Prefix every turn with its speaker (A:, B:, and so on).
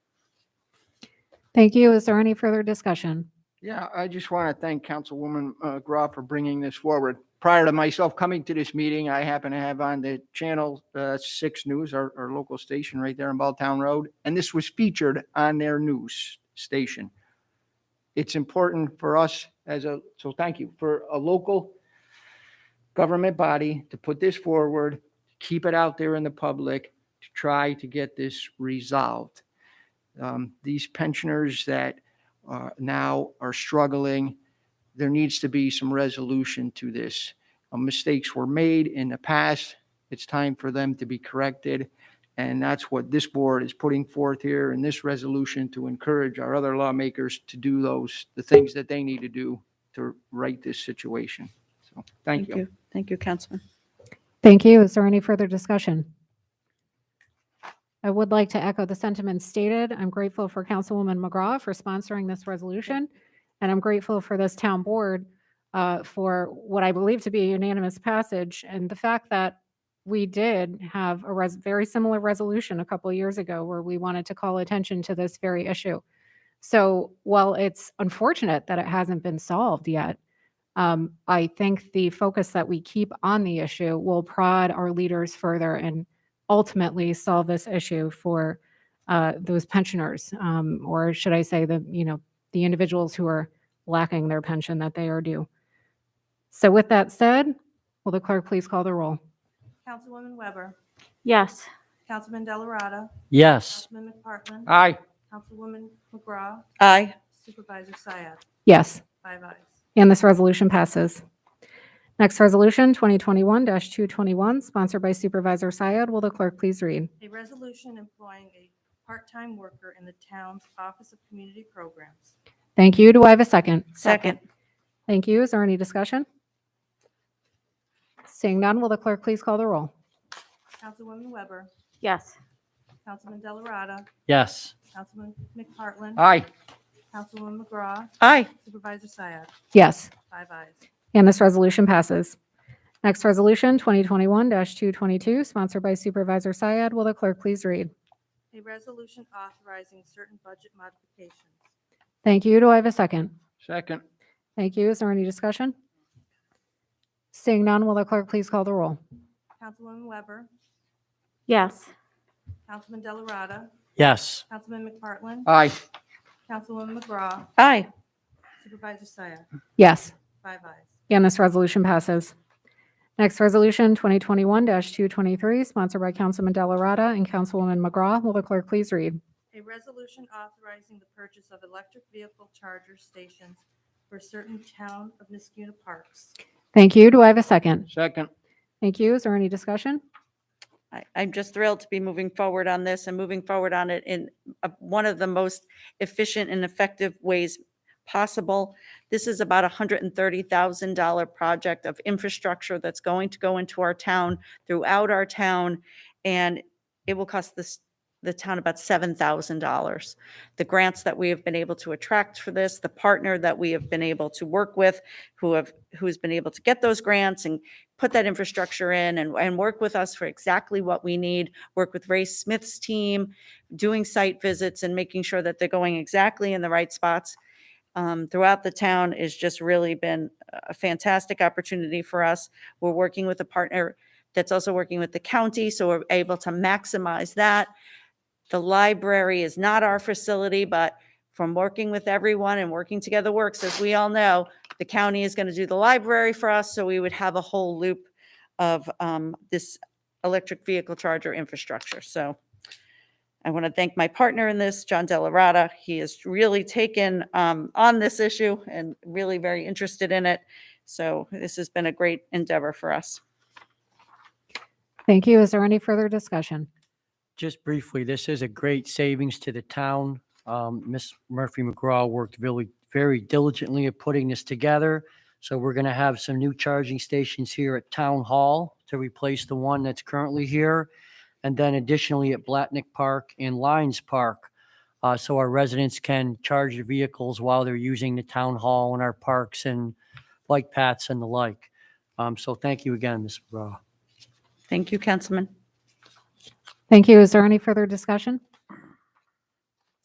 A: Thank you. Is there any further discussion?
B: Yeah, I just want to thank Councilwoman uh, Grau for bringing this forward. Prior to myself coming to this meeting, I happen to have on the channel uh, Six News, our, our local station right there on Balltown Road, and this was featured on their news station. It's important for us as a, so thank you, for a local government body to put this forward, keep it out there in the public, to try to get this resolved. Um, These pensioners that uh, now are struggling. There needs to be some resolution to this. Uh, Mistakes were made in the past. It's time for them to be corrected. And that's what this board is putting forth here in this resolution to encourage our other lawmakers to do those, the things that they need to do to right this situation. So, thank you.
C: Thank you, Councilman.
A: Thank you. Is there any further discussion? I would like to echo the sentiments stated. I'm grateful for Councilwoman McGraw for sponsoring this resolution, and I'm grateful for this town board uh, for what I believe to be a unanimous passage, and the fact that we did have a res- very similar resolution a couple of years ago where we wanted to call attention to this very issue. So while it's unfortunate that it hasn't been solved yet, um, I think the focus that we keep on the issue will prod our leaders further and ultimately solve this issue for uh, those pensioners, um, or should I say the you know the individuals who are lacking their pension that they are due. So with that said, will the clerk please call the roll?
D: Councilwoman Weber,
E: Yes.
D: Councilman Delarada,
F: Yes.
D: Councilman McPartlin,
B: Aye.
D: Councilwoman McGraw,
C: Aye.
D: Supervisor Syed,
A: Yes.
D: five ayes.
A: And this resolution passes. Next resolution, 2021-221, sponsored by Supervisor Syed. Will the clerk please read?
D: A resolution employing a part-time worker in the town's Office of Community Programs.
A: Thank you. Do I have a second?
C: Second.
A: Thank you. Is there any discussion? Seeing none, will the clerk please call the roll?
D: Councilwoman Weber,
E: Yes.
D: Councilman Delarada,
F: Yes.
D: Councilman McPartlin,
B: Aye.
D: Councilwoman McGraw,
C: Aye.
D: Supervisor Syed,
A: Yes.
D: five ayes.
A: And this resolution passes. Next resolution, 2021-222, sponsored by Supervisor Syed. Will the clerk please read?
D: A resolution authorizing certain budget modifications.
A: Thank you. Do I have a second?
B: Second.
A: Thank you. Is there any discussion? Seeing none, will the clerk please call the roll?
D: Councilwoman Weber,
E: Yes.
D: Councilman Delarada,
F: Yes.
D: Councilman McPartlin,
B: Aye.
D: Councilwoman McGraw,
C: Aye.
D: Supervisor Syed,
A: Yes.
D: five ayes.
A: And this resolution passes. Next resolution, 2021-223, sponsored by Councilman Delarada and Councilwoman McGraw. Will the clerk please read?
D: A resolution authorizing the purchase of electric vehicle charger stations for certain town of Niskuna parks.
A: Thank you. Do I have a second?
B: Second.
A: Thank you. Is there any discussion?
C: I- I'm just thrilled to be moving forward on this and moving forward on it in uh, one of the most efficient and effective ways possible. This is about a $130,000 project of infrastructure that's going to go into our town, throughout our town, and it will cost this, the town about $7,000. The grants that we have been able to attract for this, the partner that we have been able to work with, who have, who's been able to get those grants and put that infrastructure in and, and work with us for exactly what we need, work with Ray Smith's team, doing site visits and making sure that they're going exactly in the right spots um, throughout the town has just really been a fantastic opportunity for us. We're working with a partner that's also working with the county, so we're able to maximize that. The library is not our facility, but from working with everyone and working together works, as we all know, the county is going to do the library for us, so we would have a whole loop of um, this electric vehicle charger infrastructure. So I want to thank my partner in this, John Delarada. He has really taken um, on this issue and really very interested in it. So this has been a great endeavor for us.
A: Thank you. Is there any further discussion?
F: Just briefly, this is a great savings to the town. Um, Ms. Murphy McGraw worked really, very diligently at putting this together. So we're going to have some new charging stations here at Town Hall to replace the one that's currently here. And then additionally at Blatnick Park and Lyons Park. Uh, so our residents can charge their vehicles while they're using the town hall and our parks and bike paths and the like. Um, so thank you again, Ms. McGraw.
C: Thank you, Councilman.
A: Thank you. Is there any further discussion?